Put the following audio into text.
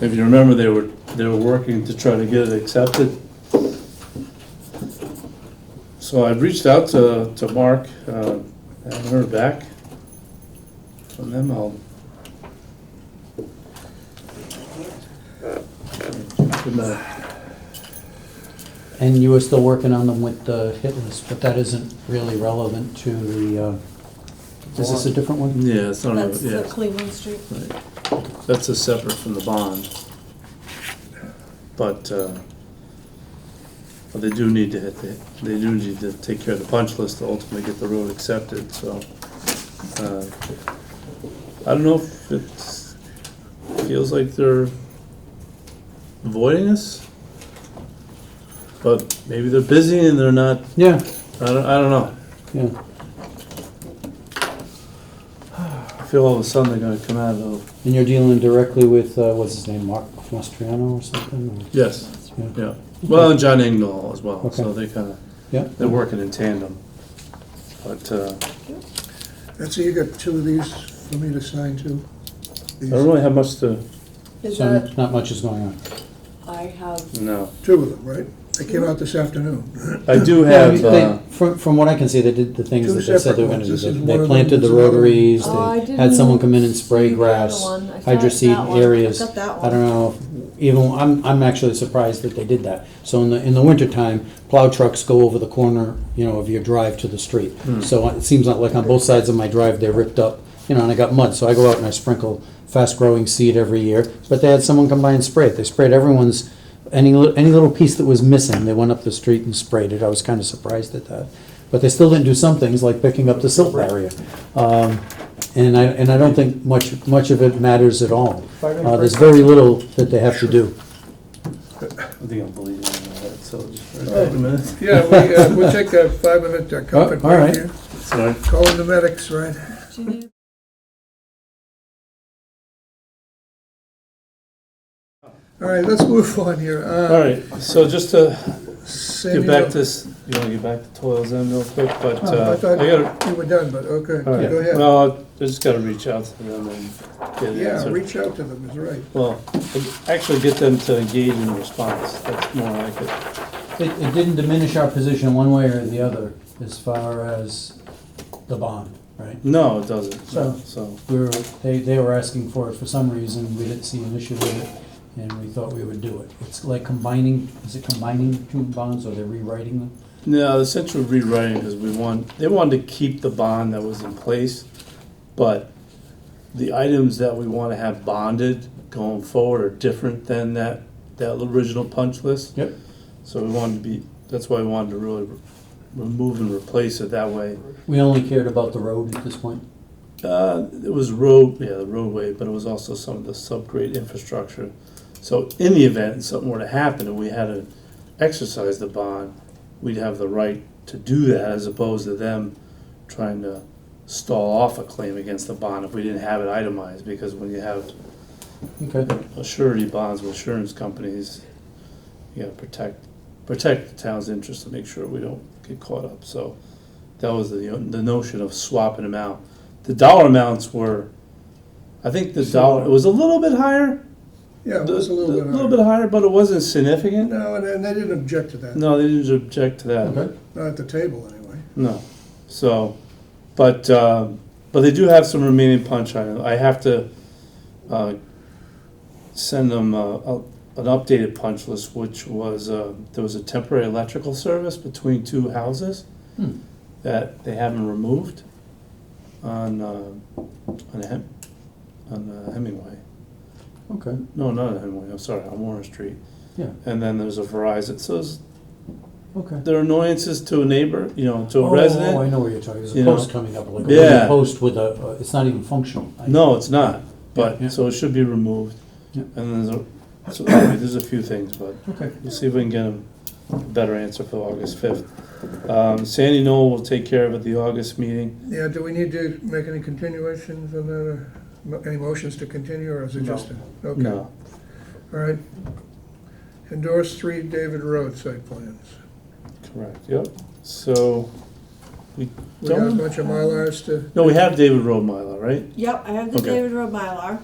If you remember, they were, they were working to try to get it accepted. So I reached out to, to Mark, uh, I haven't heard back from them, I'll. Good night. And you were still working on them with the hit list, but that isn't really relevant to the, uh, is this a different one? Yeah, it's not, That's the Oh, yeah, Cleveland Street. that's a separate from the bond. But, uh, but they do need to hit, the- they do need to take care of the punch list to ultimately get the road accepted, so. uh, I don't know if it feels like they're avoiding us, but maybe they're busy and they're not, Yeah, I don't, I don't know. yeah. I feel all of a sudden they're gonna come out of, And you're dealing directly with, uh, what's his name, Mark Mastriano or something? or- yes. yeah. Yeah, well, and John Engdahl as well, so Okay. they kind of, Yeah, they're working in tandem. But, uh, Betsy, you got two of these for me to sign too? I These- don't really have much to, Is so that, not much is going on. I have, no. Two of them, right? They came out this afternoon. I do Yeah, I have, mean, they- uh, From, from what I can see, they did the things Two that they said they separate were gonna ones. do. This They is one they of them, planted this the is another one. rotaries, Oh, I they had someone didn't come in and spray see the other grass, one. I saw that hydroseed one. I areas. got that I don't know, if- even, I'm, I'm actually surprised that they did that. So in the, in the wintertime, plow trucks go over the corner, you know, of your drive to the street. So it seems like, like on both sides of my drive, they're ripped up, you know, and I got mud, so I go out and I sprinkle fast-growing seed every year. But they had someone come by and spray it. They sprayed everyone's, any, li- any little piece that was missing, they went up the street and sprayed it. I was kind of surprised at that. But they still didn't do some things like picking up the silt barrier. Um, and I, and I don't think much, much of it matters at all. Uh, there's very little that they have to do. I think I'm bleeding on my head, so just for a minute. Yeah, we, uh, we'll take a five-minute uh, Oh, all comfort break right. here. Sorry. Call in the medics, right? do you need All right, let's move on here. Uh, All right, so just to Sandy, get back to, s- you wanna get back to Toils End real quick, but, Oh, uh, I I thought- gotta, You were done, but okay, all right, go ahead. well, I just gotta reach out to them and get it Yeah, answered. reach out to them, is right. Well, actually get them to engage in a response, that's more like it. It, it didn't diminish our position one way or the other as far as the bond, right? No, it doesn't, So- so, We were, they, they were asking for it for some reason, we didn't see an issue with it, and we thought we would do it. It's like combining, is it combining two bonds, or they're rewriting them? No, the essential rewriting because we want, they wanted to keep the bond that was in place, but the items that we want to have bonded going forward are different than that, that original punch list. Yep. So we wanted to be, that's why we wanted to really re- remove and replace it that way. We only cared about the road at this point. Uh, it was road, yeah, the roadway, but it was also some of the subgrade infrastructure. So in the event something were to happen and we had to exercise the bond, we'd have the right to do that as opposed to them trying to stall off a claim against the bond if we didn't have it itemized, because when you have Okay. a surety bonds with insurance companies, you gotta protect, protect the town's interest to make sure we don't get caught up, so that was the, the notion of swapping them out. The dollar amounts were, I think the dollar, it was a little bit higher. Yeah, it was a little bit. A little higher. bit higher, but it wasn't significant. No, and- and they didn't object to that, No, they didn't object to that, Okay. not at the table, anyway. no, so, but, um, but they do have some remaining punch items, I have to, uh, send them uh, a, an updated punch list, which was, uh, there was a temporary electrical service between two houses Hmm. that they haven't removed on, uh, on Hem, on uh, Hemingway. Okay. No, not on Hemingway, I'm sorry, on Warren Street. Yeah. And then there's a Verizon, so there's, Okay. there are annoyances to a neighbor, you know, to a Oh, I resident. know what you're talking, there's you a know. post coming up, like a Yeah. wooden post with a, uh, it's not even functional. I- No, it's not, Yeah. but, so it should be removed. Yeah. And then there's a, so anyway, there's a few things, but Okay. We'll see if we can get a better answer for August fifth. Um, Sandy Knoll will take care of it at the August meeting. Yeah, do we need to make any continuations on that, or mo- any motions to continue, or is it No. just? a- Okay, all No, right. Endorse three David Road site plans. correct, yep. So, we We got a don't, bunch of Mylars to, no, we have David Road Mylar, right? Yep, I have the Okay. David Road Mylar.